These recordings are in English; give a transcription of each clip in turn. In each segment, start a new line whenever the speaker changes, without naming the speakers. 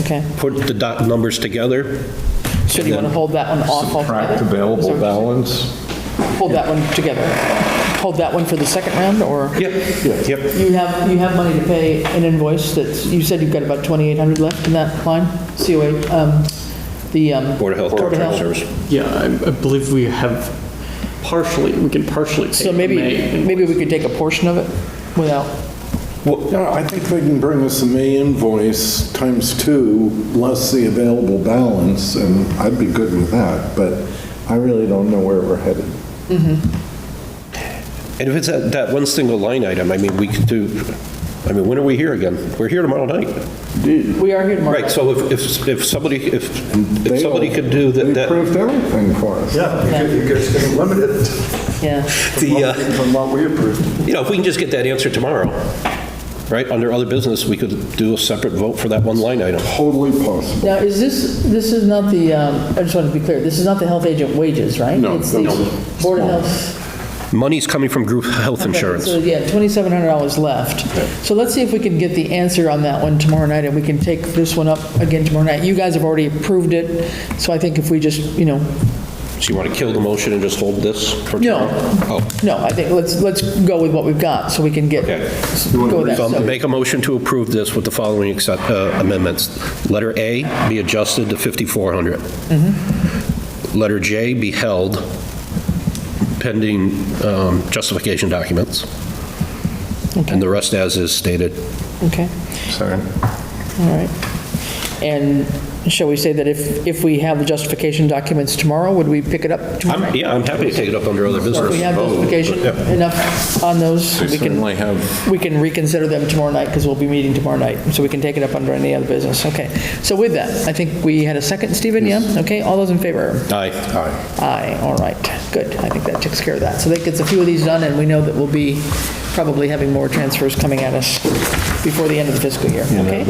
Okay.
put the dot numbers together.
So do you want to hold that one off altogether? Is
Subtract
that what
available
you're
balance.
saying? Hold that one together. Hold that one for the second round, or?
Yep, yep.
You have, you have money to pay an invoice that's, you said you've got about 2,800 left in that line, COA, um, the. um,
Board of Health
Board
Contract
of Health.
Service.
Yeah, I I believe we have partially, we can partially take
So
the
maybe,
May.
maybe we could take a portion of it without,
No, I think they can bring us a May invoice times two, less the available balance, and I'd be good with that, but I really don't know where we're headed.
And if it's that, that one single line item, I mean, we could do, I mean, when are we here again? We're here tomorrow night.
we are here tomorrow.
Right, so if, if, if somebody, if, if
They
somebody
all-
could do that.
They
that-
approved everything for us.
Yeah, you could- you guys can limit it
Yeah.
The, uh,
from what we approved.
You know, if we can just get that answer tomorrow, right, under other business, we could do a separate vote for that one line item.
Totally possible.
Now, is this, this is not the, um, I just want to be clear, this is not the health agent wages, right?
No,
It's the
no.
Board of Health.
Money's coming from group health insurance.
So, yeah, $2,700 left. So let's see if we can get the answer on that one tomorrow night, and we can take this one up again tomorrow night. You guys have already approved it, so I think if we just, you know,
So you want to kill the motion and just hold this for
No.
tomorrow? Oh,
no, I think, let's, let's go with what we've got, so we can get,
Okay.
go with that.
So I'll
So-
make a motion to approve this with the following accept- uh, amendments. Letter A be adjusted to 5,400.
Mm-hmm.
Letter J be held pending um, justification documents. And the rest as is stated.
Okay,
Sorry.
all right. And shall we say that if, if we have the justification documents tomorrow, would we pick it up tomorrow?
I'm- Yeah, I'm happy to take it up under other
So if we
business.
have justification enough on those, we can,
Oh, Certainly have
we can reconsider them tomorrow night, because we'll be meeting tomorrow night, so we can take it up under any other business, okay. So with that, I think we had a second, Stephen, yeah? Okay, all those in favor?
Aye.
Aye, all right, good, I think that takes care of that. So that gets a few of these done, and we know that we'll be probably having more transfers coming at us before the end of the fiscal year, okay?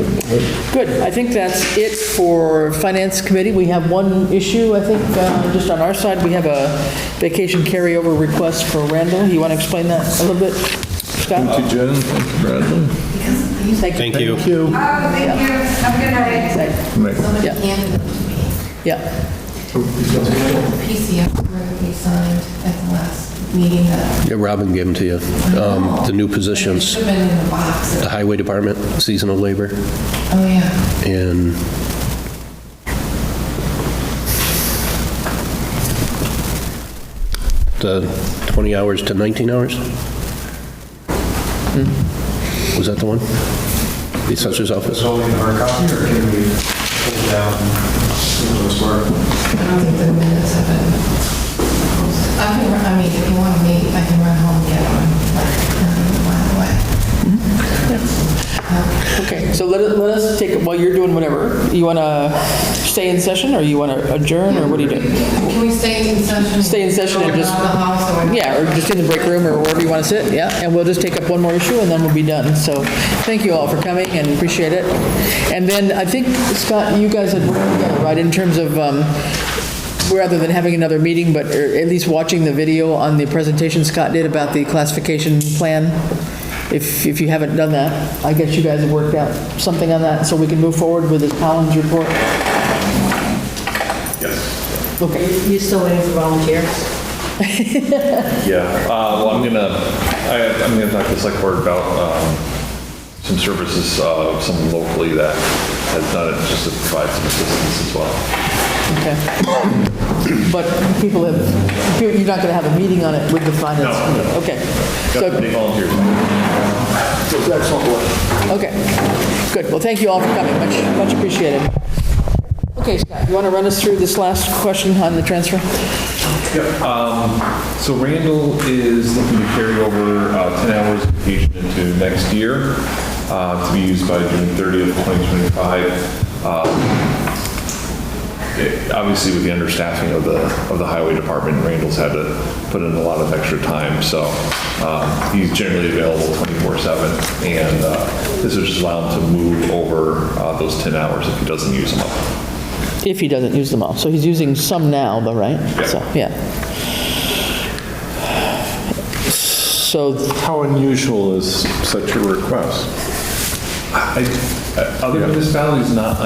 Good, I think that's it for Finance Committee. We have one issue, I think, uh, just on our side, we have a vacation carryover request for Randall. You want to explain that a little bit, Scott?
Thank you, Jen. Thank you, Bradley.
Thank you.
Oh, thank you. Have a good night.
Make-
Yeah.
And
Yeah,
the PCF report we signed at the last meeting that
Yeah, Robin gave them to you. Um, The new positions,
should have been in the box.
the highway department, seasonal labor,
Oh, yeah.
and the 20 hours to 19 hours? Was that the one? The assessor's office?
It's only in our copy, or can we pull it down into the square?
I don't think the minutes have been posted. I can, run- I mean, if you want me, I can run home and get one, like, um, a mile away.
okay, so let us, let us take, while you're doing whatever, you want to stay in session, or you want to adjourn, or what do you do?
Can we stay in session?
Stay in session and just-
Around the house or?
Yeah, or just in the break room, or wherever you want to sit, yeah, and we'll just take up one more issue, and then we'll be done. So, thank you all for coming, and appreciate it. And then, I think, Scott, you guys had worked together, right, in terms of, um, rather than having another meeting, but or at least watching the video on the presentation Scott did about the classification plan, if, if you haven't done that, I guess you guys have worked out something on that, so we can move forward with this Collins report? Okay.
You still waiting for volunteers?
Yeah, uh, well, I'm gonna, I, I'm gonna talk to the select board about, um, some services, uh, some locally that has done it, just to provide some assistance as well.
Okay. But people have, you're you're not going to have a meeting on it with the finance?
No.
Okay.
Got
So,
any volunteers?
Excellent work.
okay, good. Well, thank you all for coming, much, much appreciated. Okay, Scott, you want to run us through this last question on the transfer?
So Randall is looking to carry over, uh, ten hours of vacation into next year, uh, to be used by June thirtieth, twenty twenty-five. it- obviously with the understaffing of the, of the highway department, Randall's had to put in a lot of extra time, so um, he's generally available 24/7, and uh, this is just allow him to move over uh, those 10 hours if he doesn't use them up.
If he doesn't use them all. So he's using some now, though, right? So, yeah. So,
How unusual is such a request?
I- I- Other municipalities, not